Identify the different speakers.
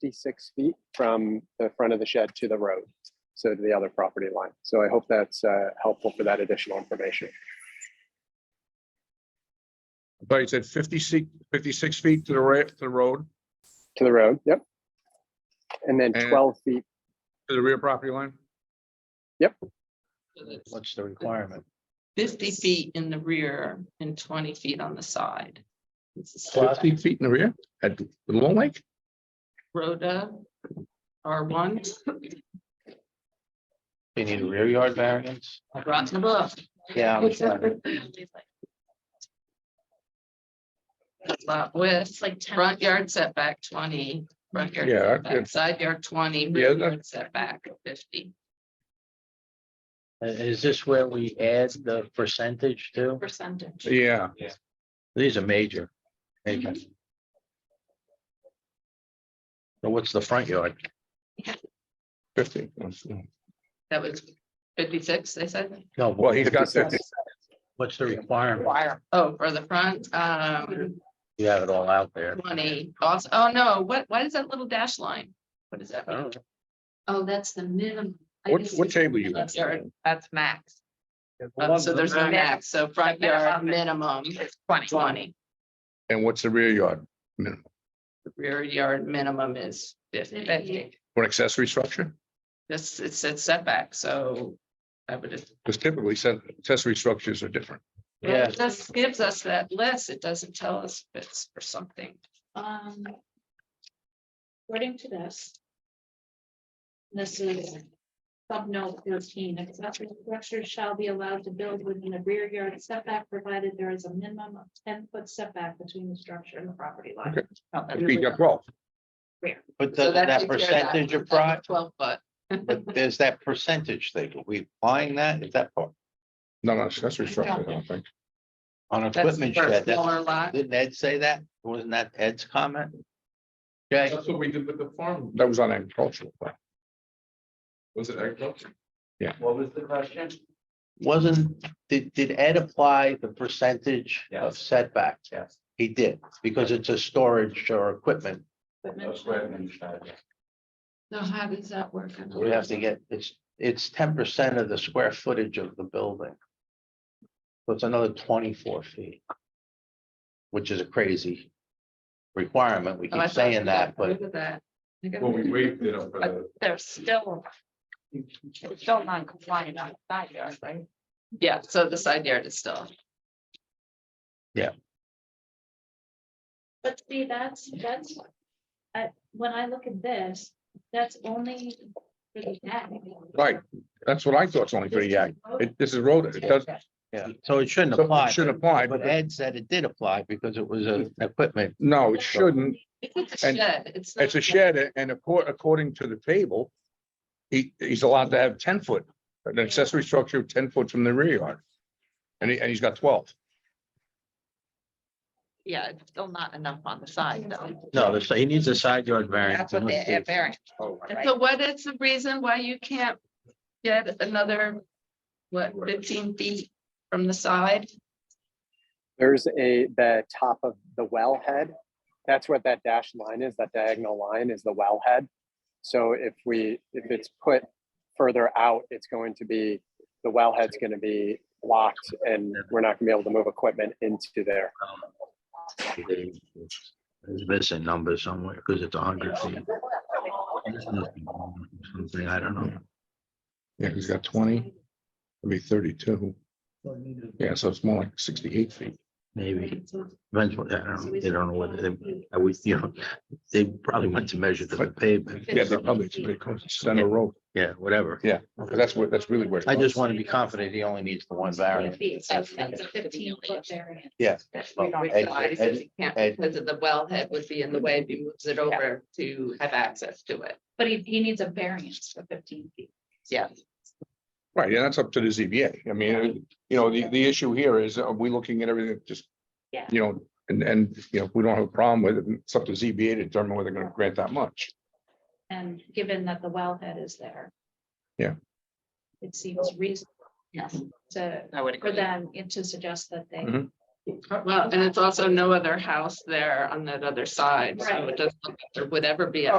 Speaker 1: 56 feet from the front of the shed to the road, so to the other property line. So I hope that's uh, helpful for that additional information.
Speaker 2: I thought you said 56 56 feet to the right, to the road,
Speaker 1: To the road, yep. And then
Speaker 2: And-
Speaker 1: 12 feet,
Speaker 2: to the rear property line?
Speaker 3: So that's
Speaker 4: What's the requirement?
Speaker 3: Fifty feet in the rear and twenty feet on the side. This is
Speaker 2: Fifty feet in the rear at the Long Lake?
Speaker 3: Rhoda, R one,
Speaker 4: They need a rear yard variance?
Speaker 3: I brought the book.
Speaker 4: Yeah. I'm sorry.
Speaker 3: Lot width, like front yard setback twenty, front yard
Speaker 2: Yeah, I
Speaker 3: setback,
Speaker 2: could-
Speaker 3: side yard twenty,
Speaker 2: Yeah,
Speaker 3: rear
Speaker 2: that-
Speaker 3: yard setback fifty
Speaker 4: Uh, Is this where we add the percentage to?
Speaker 3: percentage.
Speaker 2: Yeah,
Speaker 4: These are major. Major.
Speaker 3: Mhm.
Speaker 4: So what's the front yard?
Speaker 2: fifty.
Speaker 3: That was fifty-six, they said.
Speaker 4: No,
Speaker 2: Well, he's got
Speaker 1: 56.
Speaker 2: fifty.
Speaker 4: what's the requirement?
Speaker 3: Oh, for the front, um,
Speaker 4: You have it all out there.
Speaker 3: twenty, also, oh no, what, what is that little dash line? What is that?
Speaker 4: I don't know.
Speaker 3: Oh, that's the minimum. I
Speaker 2: What,
Speaker 3: guess
Speaker 2: what
Speaker 3: it's
Speaker 2: table you
Speaker 3: minimum
Speaker 2: at?
Speaker 3: yard. That's max. Uh, So there's no max, so front yard minimum is twenty.
Speaker 2: And what's the rear yard? Minimum
Speaker 3: The Rear yard minimum is fifty.
Speaker 2: For an accessory structure?
Speaker 3: This, it said setback, so I would just.
Speaker 2: Because typically said accessory structures are different.
Speaker 4: Yeah.
Speaker 3: It just gives us that list. It doesn't tell us if it's for something.
Speaker 5: Um. According to this. This is. Sub note thirteen, accessory structures shall be allowed to build within a rear yard setback, provided there is a minimum of ten foot setback between the structure and the property line.
Speaker 2: Okay.
Speaker 3: Oh, that-
Speaker 2: You got twelve.
Speaker 4: But
Speaker 3: So
Speaker 4: does that
Speaker 3: takes care of that.
Speaker 4: percentage of
Speaker 3: That's
Speaker 4: pride,
Speaker 3: Twelve foot.
Speaker 4: but there's that percentage thing. Are we buying that? Is that part
Speaker 2: Not an accessory structure, I don't think.
Speaker 4: on
Speaker 3: That's
Speaker 4: equipment
Speaker 3: for a
Speaker 4: shed? That's-
Speaker 3: Smaller lot.
Speaker 4: Didn't Ed say that? Wasn't that Ed's comment? Jay?
Speaker 2: what we did with the farm. That was on agricultural. Was it agricultural?
Speaker 6: What was the question?
Speaker 4: Wasn't, did, did Ed apply the percentage of
Speaker 6: Yes.
Speaker 4: setback?
Speaker 6: Yes.
Speaker 4: He did, because it's a storage or equipment.
Speaker 6: That's what I understood.
Speaker 3: So how does that work? I don't
Speaker 4: We
Speaker 3: know.
Speaker 4: have to get, it's, it's ten percent of the square footage of the building. So it's another twenty-four feet. Which is a crazy requirement. We
Speaker 3: Oh, I
Speaker 4: keep
Speaker 3: thought
Speaker 4: saying
Speaker 3: we
Speaker 4: that,
Speaker 3: got
Speaker 4: but
Speaker 3: rid of that. I think I-
Speaker 2: waived it up for
Speaker 5: They're still. Still non-compliant on side yard, right?
Speaker 3: Yeah, so the side yard is still.
Speaker 5: But see, that's, that's, uh, when I look at this, that's only for the deck.
Speaker 2: Right, that's what I thought, it's only for the yak. It, this is road, it does,
Speaker 4: yeah, so it shouldn't
Speaker 2: so
Speaker 4: apply. Mm-hmm.
Speaker 2: it should apply,
Speaker 4: But
Speaker 2: but
Speaker 4: Ed said it did apply because it was a equipment.
Speaker 2: no, it shouldn't.
Speaker 3: It's a
Speaker 2: And
Speaker 3: shed. It's.
Speaker 2: It's a
Speaker 3: not-
Speaker 2: shed and according, according to the table, he, he's allowed to have ten foot, an accessory structure ten foot from the rear yard. And he, and he's got twelve.
Speaker 5: Yeah, it's still not enough on the side though.
Speaker 4: No, the- he needs a side yard variance. unless there's-
Speaker 3: So what is the reason why you can't get another, what, fifteen feet from the side?
Speaker 1: there's a, the top of the wellhead. That's what that dashed line is, that diagonal line is the wellhead. So if we, if it's put further out, it's going to be, the wellhead's going to be blocked and we're not going to be able to move equipment into there.
Speaker 4: There's missing number somewhere because it's a hundred feet. Something, I don't know.
Speaker 2: Yeah, he's got twenty, it'd be thirty-two. Yeah, so it's more like sixty-eight feet.
Speaker 4: Maybe eventually, I don't know. They don't know whether they, I would, you know, they probably went to measure the pavement.
Speaker 2: Yeah, they probably, it's pretty close to center road,
Speaker 4: Yeah, whatever.
Speaker 2: Yeah, because that's where, that's really where. it
Speaker 4: I just
Speaker 2: goes.
Speaker 4: want to be confident he only needs the one variance.
Speaker 5: That's that's a fifteen foot variance.
Speaker 3: That's
Speaker 4: Well,
Speaker 3: we don't
Speaker 4: Ed-
Speaker 3: realize
Speaker 4: Ed-
Speaker 3: that we can't
Speaker 4: Ed-
Speaker 3: Because of the wellhead would be in the way if he moves it over to have access to it.
Speaker 5: But he, he needs a variance for fifteen feet.
Speaker 3: Yeah.
Speaker 2: Right, yeah, that's up to the ZBA. I mean, uh, you know, the, the issue here is, are we looking at everything just?
Speaker 5: Yeah.
Speaker 2: You know, and, and, you know, if we don't have a problem with it, it's up to ZBA to determine whether they're gonna grant that much.
Speaker 5: And given that the wellhead is there.
Speaker 2: Yeah.
Speaker 5: It seems reasonable
Speaker 3: Yes.
Speaker 5: to,
Speaker 3: I would
Speaker 5: for
Speaker 3: agree.
Speaker 5: them to suggest that they.
Speaker 2: Mhm.
Speaker 3: Uh, Well, and it's also no other house there on that other side, so
Speaker 5: Right.
Speaker 3: it doesn't, look like there would ever be a